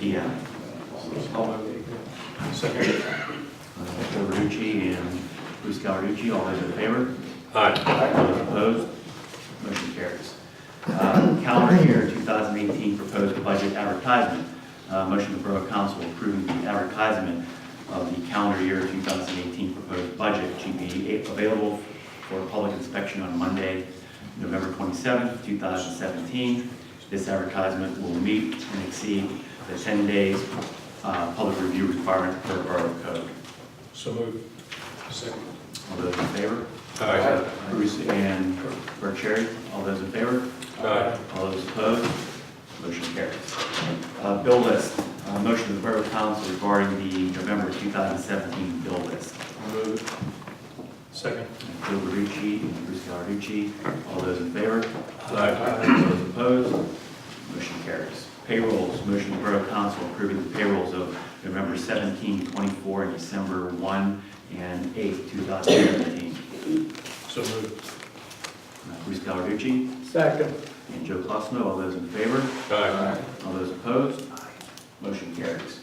Yeah, I'll move. Second. Uh, Robertucci and Bruce Gallarducci, all those in favor? Aye. Those opposed? Motion carries. Uh, Calendar year 2018 proposed budget advertisement. Uh, Motion to Borough Council approving the advertisement of the calendar year 2018 proposed budget to be available for public inspection on Monday, November 27th, 2017. This advertisement will meet and exceed the 10 days uh, public review requirement per Borough Code. So move. Second. All those in favor? Aye. Bruce and Burcheri, all those in favor? Aye. All those opposed? Motion carries. Uh, Bill list, Uh, motion to the Borough Council regarding the November 2017 bill list. I'll move. Second. Bill Barucci and Bruce Gallarducci, all those in favor? Aye. Those opposed? Motion carries. Payrolls, motion to the Borough Council approving the payrolls of November 17, 24, and December 1 and 8, 2017. So move. Uh, Bruce Gallarducci? Second. And Joe Cosmo, all those in favor? Aye. All those opposed? Motion carries.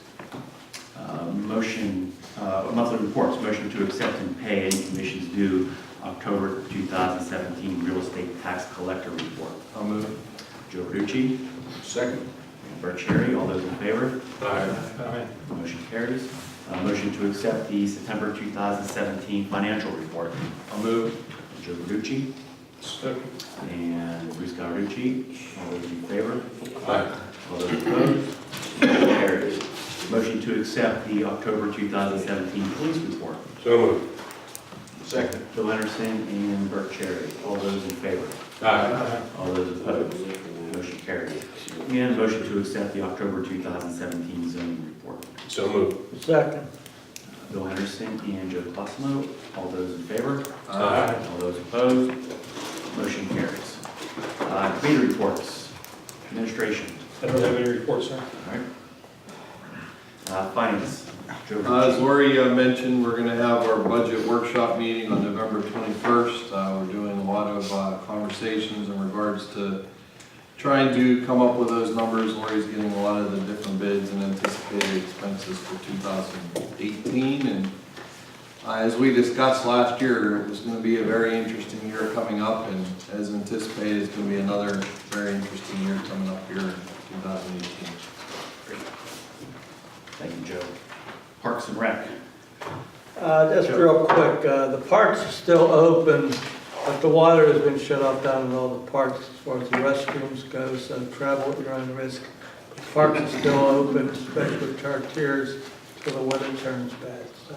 Uh, Motion, uh, monthly reports, motion to accept and pay any commissions due October 2017 real estate tax collector report. I'll move. Joe Verducci, Second. Bert Cherry, all those in favor? Aye. Aye. Motion carries. Uh, Motion to accept the September 2017 financial report. I'll move. Joe Verducci Second. and Bruce Gallarducci, all those in favor? Aye. All those opposed? Motion carries. Motion to accept the October 2017 police report. So moved. Second. Bill Anderson and Bert Cherry. All those in favor? Aye. All those opposed? Motion carries. And motion to accept the October 2017 zoning report. So moved. Second. Bill Henderson and Joe Cosmo. All those in favor? Uh, Aye. All those opposed? Motion carries. Uh, Committee reports. Administration. I don't have any reports, sir. All right. Uh, Finance. Joe Uh, Verducci. As Lori uh, mentioned, we're going to have our budget workshop meeting on November 21st. Uh, We're doing a lot of uh, conversations in regards to trying to come up with those numbers. Lori's getting a lot of the different bids and anticipated expenses for 2018. And uh, as we discussed last year, it was going to be a very interesting year coming up. And as anticipated, it's going to be another very interesting year coming up here in 2018. Thank you, Joe. Parks and Rec. Uh, Just real quick, uh, the parks are still open, but the water has been shut off down in all the parks as far as the restrooms go, so travel at your own risk. Parks are still open, especially Chartiers, till the weather turns bad, so.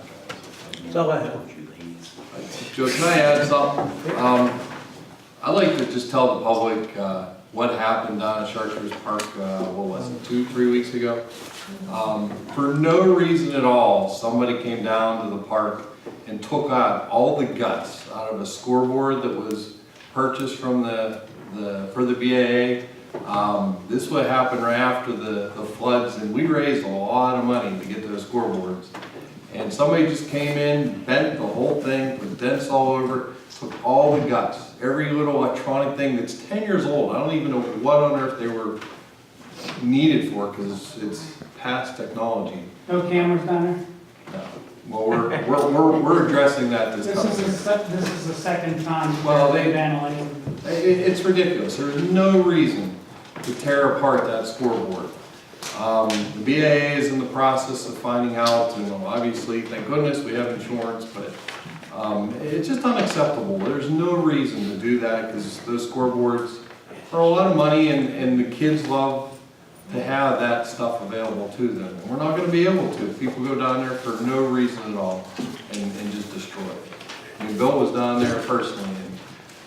That's all I have. Joe, can I add something? Um, I'd like to just tell the public, uh, what happened down at Charters Park, uh, what was it, two, three weeks ago? Um, for no reason at all, somebody came down to the park and took out all the guts out of a scoreboard that was purchased from the, the, for the BAA. Um, this would happen right after the, the floods, and we raised a lot of money to get those scoreboards. And somebody just came in, bent the whole thing, put dents all over, it, took all the guts, every little electronic thing that's ten years old. I don't even know what on earth they were needed for, because it's past technology. No cameras down there? No. Well, we're, we're, we're, we're addressing that this This is, the time. se- this is the second time. Well, they- Vandalism. It, it's ridiculous. There's no reason to tear apart that scoreboard. Um, the BAA is in the process of finding out, and obviously, thank goodness, we have insurance, but, um, it's just unacceptable. There's no reason to do that, because those scoreboards are a lot of money, and, and the kids love to have that stuff available to them. And we're not gonna be able to if people go down there for no reason at all and, and just destroy it. I mean, Bill was down there personally,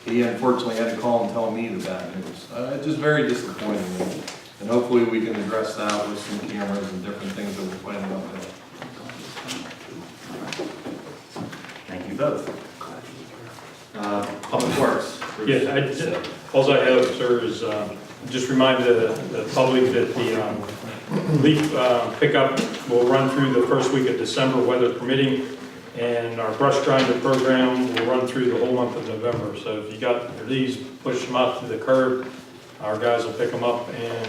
and he unfortunately had to call and tell me the bad news. Uh, it's just very disappointing, and- and hopefully we can address that with some cameras and different things that we're planning on doing. Thank you both. Uh, Public Works. Bruce. Yeah, I, ju- alls I have, sir, is um, just remind the, the public that the um, leaf uh, pickup will run through the first week of December, weather permitting, and our brush grinder program will run through the whole month of November. So if you got your leaves, push them out to the curb, our guys will pick them up and